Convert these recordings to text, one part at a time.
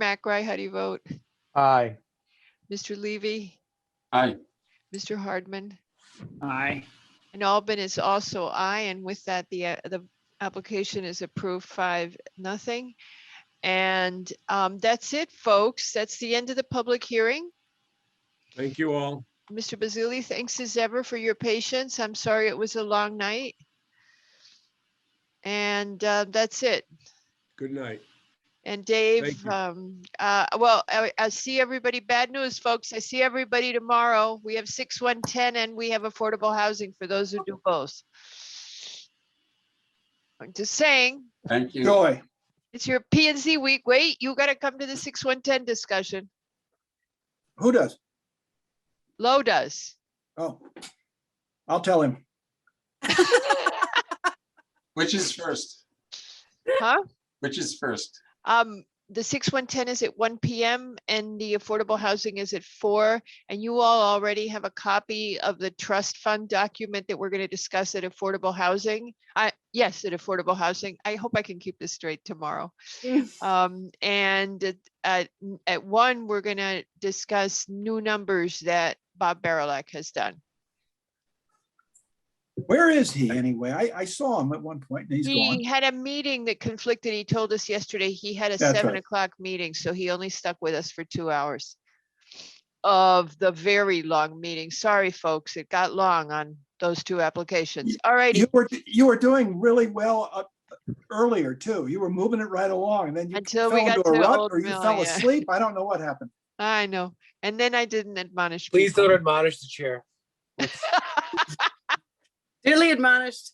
McRae, how do you vote? Aye. Mr. Levy, Aye. Mr. Hardman, Aye. and Albin is also aye, and with that, the, uh, the application is approved five, nothing. And um, that's it, folks. That's the end of the public hearing. Thank you all. Mr. Bazili, thanks as ever for your patience. I'm sorry it was a long night. And uh, that's it. Good night. And Dave, you. um, uh, well, I, I see everybody, bad news, folks. I see everybody tomorrow. We have six, one, ten, and we have affordable housing for those who do both. I'm just saying, Thank you. Joy. it's your P and Z week. Wait, you gotta come to the six, one, ten discussion. Who does? Lo does. Oh. I'll tell him. Which is first? Huh? Which is first? Um, the six one ten is at one PM and the affordable housing is at four. And you all already have a copy of the trust fund document that we're gonna discuss at affordable housing. I, yes, at affordable housing. I hope I can keep this straight tomorrow. Um, and at- at, n- at one, we're gonna discuss new numbers that Bob Barilak has done. Where is he anyway? I, I saw him at one point and he's He gone. had a meeting that conflicted. He told us yesterday he had a That's seven right. o'clock meeting, so he only stuck with us for two hours of the very long meeting. Sorry, folks, it got long on those two applications. All righty, You were, you were doing really well uh, earlier too. You were moving it right along and then you Until fell we got into a to rut Old or you Mill, fell yeah. asleep. I don't know what happened. I know. And then I didn't admonish. Please people. don't admonish the chair. Duly admonished.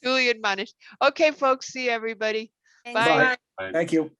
Duly admonished. Okay, folks, see everybody. Thank you. Bye. Thank you.